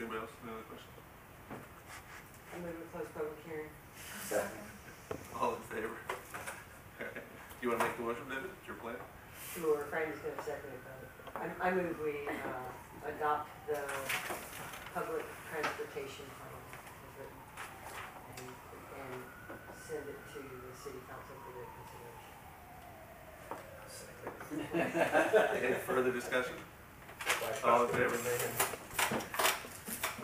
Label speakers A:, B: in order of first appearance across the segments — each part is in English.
A: Anybody else have any other questions?
B: I move to close public hearing.
A: All in favor? You wanna make the motion, David? It's your plan?
B: Sure, Frank is gonna second it, but I, I move we, uh, adopt the public transportation plan as written and, and send it to the city council for their consideration.
A: Any further discussion? All in favor?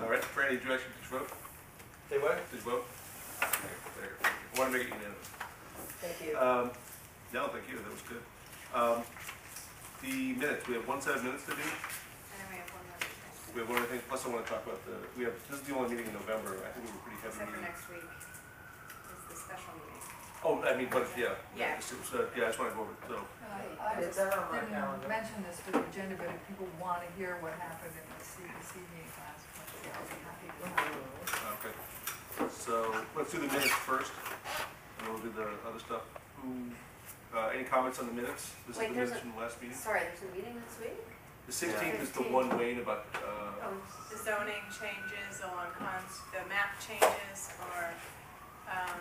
A: All right, Franny, did you actually, did you vote?
C: Say what?
A: Did you vote? There, there. I wanna make it unanimous.
B: Thank you.
A: Um, no, thank you, that was good. Um, the minutes, we have one set of minutes to do.
D: And then we have one more except
A: We have one other thing, plus I wanna talk about the, we have, this is the only meeting in November. I think we were pretty heavy
D: for
A: meeting.
D: next week is the special meeting.
A: Oh, I mean, but, yeah.
D: Yeah.
A: it's- it's, uh, Yeah, I just wanna go over it, so.
E: I
B: It's
E: just
B: out on my calendar.
E: didn't mention this for the agenda, but if people want to hear what happened in the CDC meeting last month, I'll be happy to.
A: Okay, so let's do the minutes first, and we'll do the other stuff. Who, uh, any comments on the minutes? This is
D: Wait,
A: the
D: there's
A: minutes from the last meeting.
D: Sorry, there's a meeting this week?
A: The sixteenth is the
D: 15th.
A: one Wayne about, uh,
D: Oh,
F: the zoning changes on cons, the map changes or, um,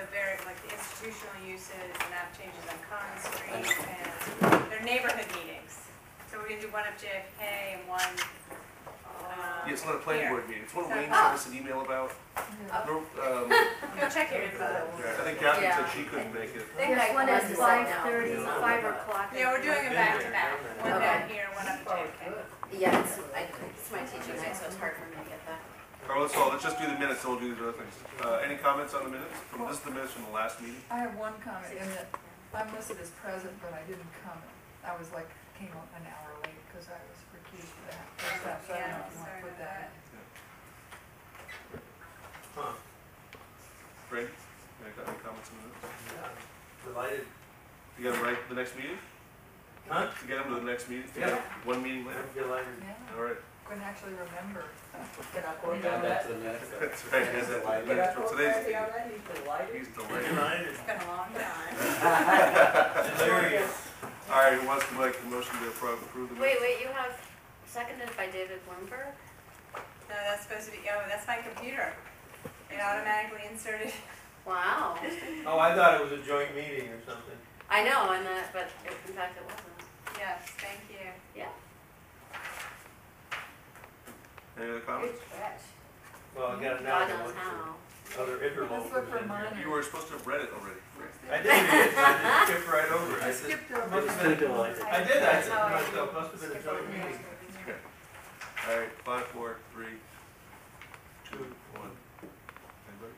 F: the very, like the institutional uses, the map changes on Con Street and their neighborhood meetings. So we're gonna do one of JFK and one, um.
A: yeah, it's not a planning
F: here.
A: board meeting, it's one
F: So-
A: Wayne sent us an email about.
E: Yeah.
A: Remember, um,
F: Go check your info.
A: I think Catherine said she couldn't make it.
D: Next one is five thirty, five o'clock.
F: Yeah, we're doing it back to back, one down here, one up at JFK.
G: Yeah, it's, I, it's my teaching night, so it's hard for me to get that.
A: All right, so let's just do the minutes, and we'll do the other things. Uh, any comments on the minutes? From, this is the minutes from the last meeting.
E: I have one comment in that I'm listed as present, but I didn't come. I was like, came up an hour late because I was recused for that. first half, so I don't know if you want to put that
A: Brady, any co- any comments on the minutes?
C: Delighted.
A: You got them right, the next meeting?
C: Huh?
A: You get them to the next meeting?
C: Yeah.
A: One meeting later?
C: I'm delighted.
E: in. Yeah,
A: All right.
E: can actually remember.
B: Can I quote that?
H: Got that to the minutes.
A: That's right, that's it.
B: Can I quote
A: Today's,
B: Franny on that? He's delighted.
A: he's delayed.
C: Delighted.
F: It's been a long time.
C: Delirious.
A: All right, who wants to make the motion to appro- approve the
G: Wait,
A: minutes?
G: wait, you have seconded by David Bloomberg?
F: No, that's supposed to be, oh, that's my computer. It automatically inserted.
G: Wow.
C: Oh, I thought it was a joint meeting or something.
G: I know, and that, but it- in fact it wasn't.
F: Yes, thank you.
A: Any other comments?
G: catch.
C: Well, I got it now.
G: God
C: I can
G: knows
C: look
G: how.
C: for Other interlopers.
E: Let's look for
C: in there.
E: mine.
A: You were supposed to have read it already.
C: I did, I just skipped right over it.
E: I
C: I said-
E: skipped over.
C: Must have been a
H: Delighted.
C: I did, I said,
F: Oh, I
C: must have, must have been a
F: Skip over
C: joint
F: here.
C: meeting.
A: All right, five, four, three, two, one. Anybody?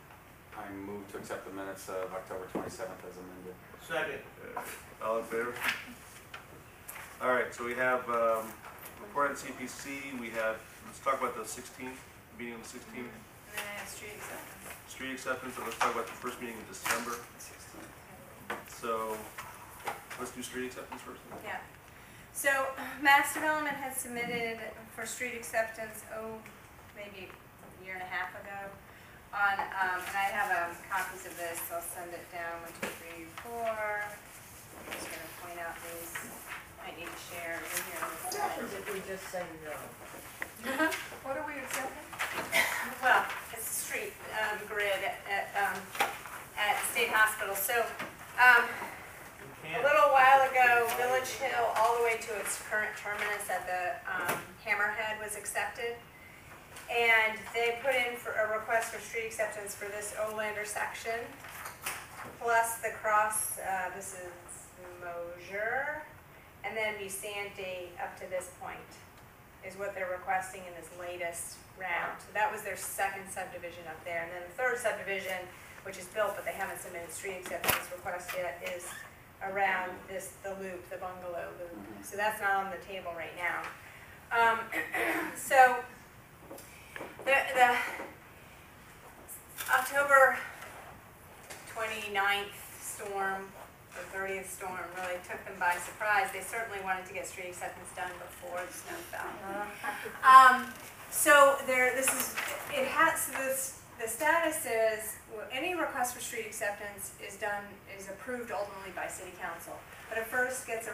H: I move to accept the minutes of October twenty-seventh as amended.
C: Second.
A: Uh, All in favor? All right, so we have, um, report on CPC, we have, let's talk about the sixteenth, meeting on the sixteenth,
F: And then I have street acceptance.
A: street acceptance, and let's talk about the first meeting in December. So, let's do street acceptance first.
F: Yeah. So Mass Development had submitted for street acceptance, oh, maybe a year and a half ago, on, um, and I have, um, copies of this, I'll send it down, one, two, three, four. I'm just gonna point out these, might need to share, we're here. in a
B: What
F: second.
B: happens if we just say no?
E: What are we accepting?
F: Well, it's a street um, grid at, at, um, at State Hospital. So um,
C: You
F: a
C: can't.
F: little while ago, Village Hill, all the way to its current terminus at the um, Hammerhead was accepted. And they put in for a request for street acceptance for this Olander section, plus the cross, uh, this is Mosier, and then Busante up to this point is what they're requesting in this latest round. So that was their second subdivision up there. And then the third subdivision, which is built, but they haven't submitted street acceptance request yet, is around this, the loop, the bungalow loop. So that's not on the table right now. Um, so, the, the October 29th storm, the 30th storm really took them by surprise. They certainly wanted to get street acceptance done before the snow fell. Um, so there, this is, it has, so this, the status is, well, any request for street acceptance is done, is approved ultimately by city council. But it first gets a